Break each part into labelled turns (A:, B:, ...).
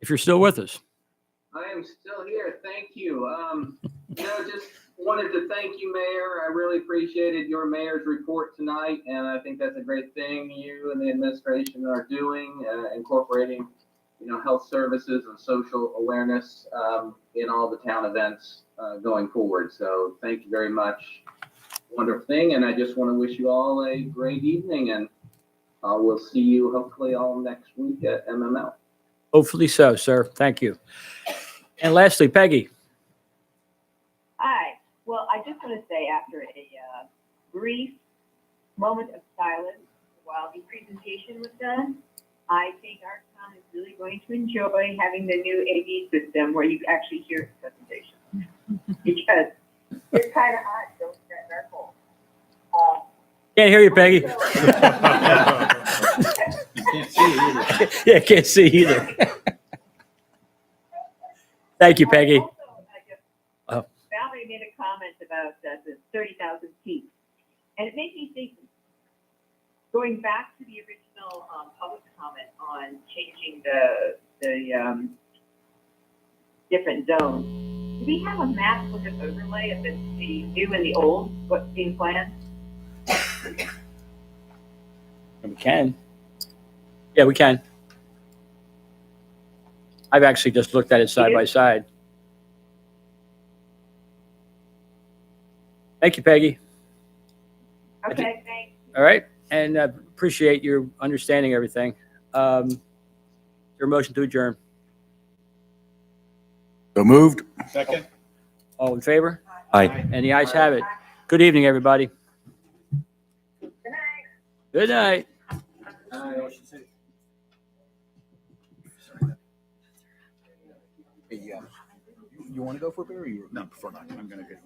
A: if you're still with us.
B: I am still here. Thank you. Um, you know, just wanted to thank you, Mayor. I really appreciated your mayor's report tonight, and I think that's a great thing you and the administration are doing, uh, incorporating, you know, health services and social awareness um, in all the town events uh, going forward. So thank you very much. Wonderful thing, and I just want to wish you all a great evening, and uh, we'll see you hopefully all next week at MML.
A: Hopefully so, sir. Thank you. And lastly, Peggy.
C: Hi. Well, I just want to say after a uh, brief moment of silence while the presentation was done, I think our town is really going to enjoy having the new AV system where you actually hear the presentation. because it's kind of hot, don't get our cold. Uh,
A: Can't hear you, Peggy. Yeah, can't see either. Thank you, Peggy.
C: Also, I just-
A: Oh.
C: Valerie made a comment about uh, the thirty thousand feet, and it made me think, going back to the original, um, public comment on changing the, the, um, different zones. Do we have a map with an overlay of the, the new and the old, what's being planned?
A: We can. Yeah, we can. I've actually just looked at it side by side. Thank you, Peggy. I did-
C: Okay, thanks.
A: All right, and uh, appreciate your understanding everything. Um, Your motion to adjourn.
D: So moved.
E: Second?
A: All in favor?
D: Aye.
A: And the ayes have it. Good evening, everybody.
C: Good night.
A: Good night.
D: um, You want to go for a beer or you?
E: No, prefer not. I'm gonna go.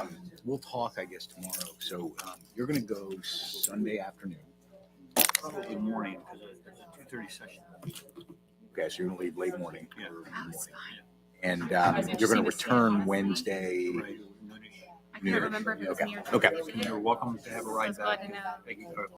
D: Um, We'll talk, I guess, tomorrow. So um, you're going to go Sunday afternoon.
E: Good morning, because there's a two thirty session.
D: Okay, so you're going to leave late morning.
E: Yeah.
D: or morning. And um, you're going to return Wednesday.
E: Right.
F: I
D: New Year's.
F: can't remember if it was
D: Okay.
F: New Year's. or
D: Okay.
F: Thursday.
E: You're welcome to have a
F: I
E: ride
F: was glad
E: back.
F: to know.
E: Thank you.